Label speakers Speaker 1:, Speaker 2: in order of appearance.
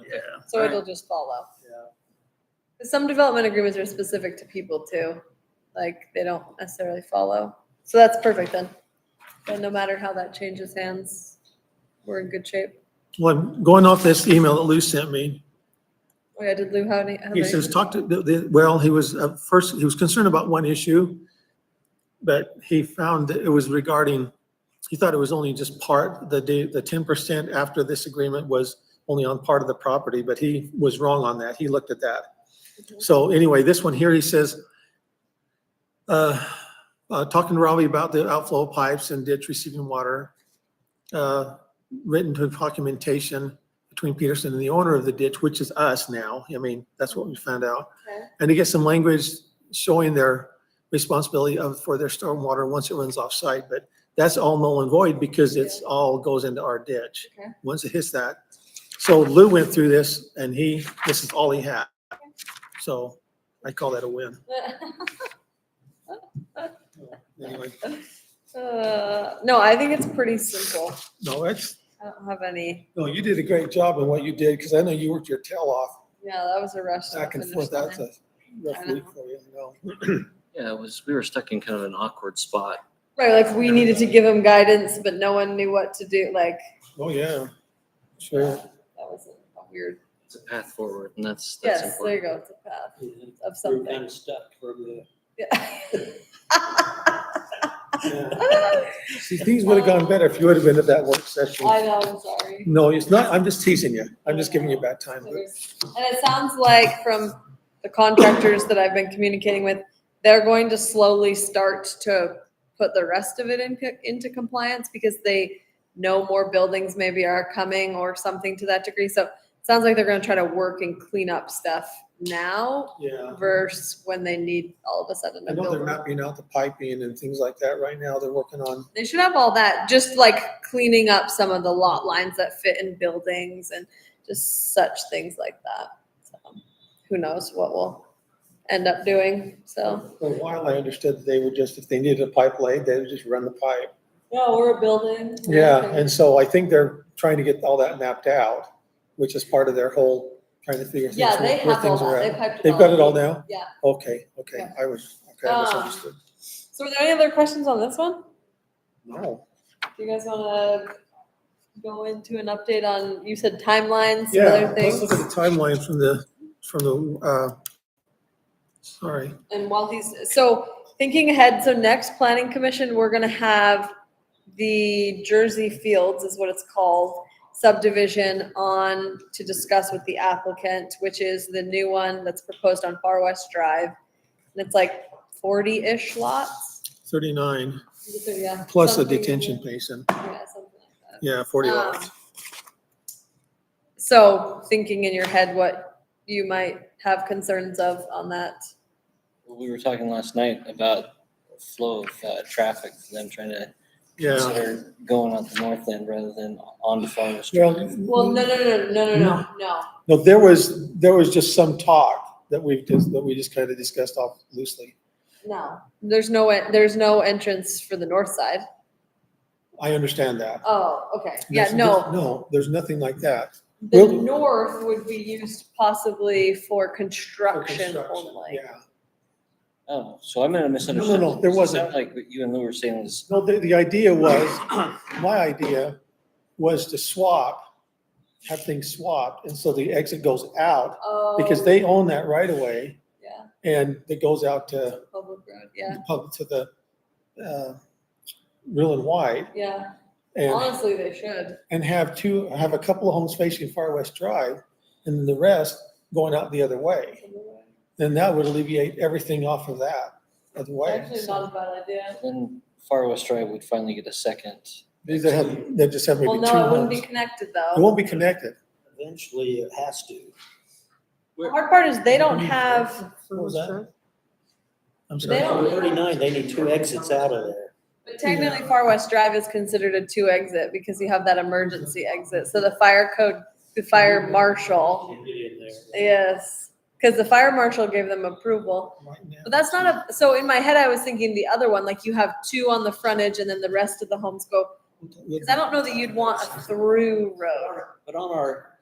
Speaker 1: Yeah.
Speaker 2: So
Speaker 1: All
Speaker 2: it'll just follow. Some development agreements are specific to people too, like they don't necessarily follow. So that's perfect then. And no matter how that changes hands, we're in good shape.
Speaker 3: Well, going off this email that Lou sent me,
Speaker 2: Oh yeah, did Lou have any? have
Speaker 3: he
Speaker 2: any-
Speaker 3: says, talk to, the- the- well, he was, uh, first, he was concerned about one issue, but he found that it was regarding, he thought it was only just part, the, da- the ten percent after this agreement was only on part of the property, but he was wrong on that. He looked at that. So anyway, this one here, he says, uh, uh, talking to Robbie about the outflow pipes and ditch receiving water, uh, written to documentation between Peterson and the owner of the ditch, which is us now. I mean, that's what we found out.
Speaker 2: Okay.
Speaker 3: And to get some language showing their responsibility of, for their stormwater once it runs off-site. But that's all null and void because it's all goes into our ditch.
Speaker 2: Okay.
Speaker 3: Once it hits that. So Lou went through this and he, this is all he had. So I call that a win. Anyway,
Speaker 2: Uh, No, I think it's pretty simple.
Speaker 3: no, that's,
Speaker 2: I don't have any,
Speaker 3: no, you did a great job in what you did because I know you worked your tail off
Speaker 2: yeah, that was a rush. to
Speaker 3: back and
Speaker 2: finish
Speaker 3: forth. That's
Speaker 2: line.
Speaker 3: a rough
Speaker 2: I
Speaker 3: week for you, you know.
Speaker 1: Yeah, it was, we were stuck in kind of an awkward spot.
Speaker 2: Right, like we needed to give him guidance, but no one knew what to do, like,
Speaker 3: Oh, yeah, sure.
Speaker 2: that was a weird,
Speaker 1: It's a path forward and that's, that's
Speaker 2: yes, there you
Speaker 1: important.
Speaker 2: go, it's a path
Speaker 4: We
Speaker 2: of
Speaker 4: were
Speaker 2: something.
Speaker 4: kind of stuck for the,
Speaker 2: Yeah.
Speaker 3: Yeah.
Speaker 2: I
Speaker 3: See, things would have gone better if you would have been at that work session.
Speaker 2: know, I'm sorry.
Speaker 3: No, it's not. I'm just teasing you. I'm just giving you a bad time.
Speaker 2: And
Speaker 3: but-
Speaker 2: it sounds like from the contractors that I've been communicating with, they're going to slowly start to put the rest of it in, into compliance because they know more buildings maybe are coming or something to that degree. So it sounds like they're gonna try to work and clean up stuff now
Speaker 3: Yeah.
Speaker 2: versus when they need all of a sudden
Speaker 3: Uh-huh. I
Speaker 2: a
Speaker 3: know they're
Speaker 2: building.
Speaker 3: mapping out the piping and things like that right now. They're working on,
Speaker 2: They should have all that, just like cleaning up some of the lot lines that fit in buildings and just such things like that. So, who knows what we'll end up doing? So.
Speaker 3: for a while, I understood that they would just, if they needed a pipe laid, they would just run the pipe.
Speaker 2: No, we're a building.
Speaker 3: Yeah, and so I think they're trying to get all that mapped out, which is part of their whole, trying to figure things,
Speaker 2: Yeah, they
Speaker 3: where
Speaker 2: have all
Speaker 3: things are
Speaker 2: that. They
Speaker 3: at.
Speaker 2: piped it
Speaker 3: They've
Speaker 2: all.
Speaker 3: got it all now?
Speaker 2: Yeah.
Speaker 3: Okay, okay.
Speaker 2: Yeah.
Speaker 3: I was, okay,
Speaker 2: Um,
Speaker 3: I misunderstood.
Speaker 2: So were there any other questions on this one?
Speaker 3: No.
Speaker 2: Do you guys wanna go into an update on, you said timelines, some
Speaker 3: Yeah,
Speaker 2: other
Speaker 3: let's look at
Speaker 2: things?
Speaker 3: the timeline from the, from the, uh, sorry.
Speaker 2: And while he's, so thinking ahead, so next planning commission, we're gonna have the Jersey Fields is what it's called subdivision on to discuss with the applicant, which is the new one that's proposed on Far West Drive. And it's like forty-ish lots.
Speaker 3: 39,
Speaker 2: So, yeah,
Speaker 3: plus a
Speaker 2: something-
Speaker 3: detention basin.
Speaker 2: Yeah, something like that.
Speaker 3: Yeah, 40
Speaker 2: Um,
Speaker 3: lots.
Speaker 2: So thinking in your head what you might have concerns of on that.
Speaker 4: we were talking last night about flow of uh, traffic, them trying to
Speaker 3: Yeah.
Speaker 4: consider going out the north end rather than on the farm.
Speaker 2: Well,
Speaker 3: Well,
Speaker 2: no, no, no, no, no, no, no.
Speaker 3: no, there was, there was just some talk that we've just, that we just kind of discussed off loosely.
Speaker 2: No, there's no, en- there's no entrance for the north side.
Speaker 3: I understand that.
Speaker 2: Oh, okay, yeah,
Speaker 3: There's-
Speaker 2: no.
Speaker 3: No, there's nothing like that.
Speaker 2: The
Speaker 3: Well-
Speaker 2: north would be used possibly for
Speaker 3: for
Speaker 2: construction
Speaker 3: construction,
Speaker 2: only.
Speaker 3: Yeah.
Speaker 4: Oh, so I'm in a
Speaker 3: No,
Speaker 4: misunderstanding.
Speaker 3: no, no, there
Speaker 4: It
Speaker 3: wasn't.
Speaker 4: sounded Like what you and Lou were saying was,
Speaker 3: No, the, the idea was, my idea was to swap, have things swapped, and so the exit goes out,
Speaker 2: Oh,
Speaker 3: because they own that right of way,
Speaker 2: Yeah,
Speaker 3: and it goes out to,
Speaker 2: public road, yeah,
Speaker 3: the pub- to the, uh, real and wide,
Speaker 2: yeah.
Speaker 3: and
Speaker 2: Honestly, they should.
Speaker 3: and have two, have a couple of homes facing Far West Drive and then the rest going out the other way. Then that would alleviate everything off of that other way.
Speaker 2: Actually, not a bad idea.
Speaker 4: then Far West Drive would finally get a second.
Speaker 3: These that have, they just have
Speaker 2: Well,
Speaker 3: maybe two
Speaker 2: no, it wouldn't
Speaker 3: homes.
Speaker 2: be
Speaker 3: It
Speaker 2: connected though.
Speaker 3: won't be connected.
Speaker 5: Eventually, it has to.
Speaker 2: The Hard part is they don't have,
Speaker 3: What was that? I'm
Speaker 2: They
Speaker 3: sorry.
Speaker 2: don't-
Speaker 5: On Thirty-nine, they need two exits out of there.
Speaker 2: but technically Far West Drive is considered a two exit because you have that emergency exit. So the fire code, the fire marshal
Speaker 5: Get in there.
Speaker 2: Yes, because the fire marshal gave them approval.
Speaker 3: Right now.
Speaker 2: But that's not a, so in my head, I was thinking the other one, like you have two on the frontage and then the rest of the homes go. Because I don't know that you'd want a through road.
Speaker 5: But on our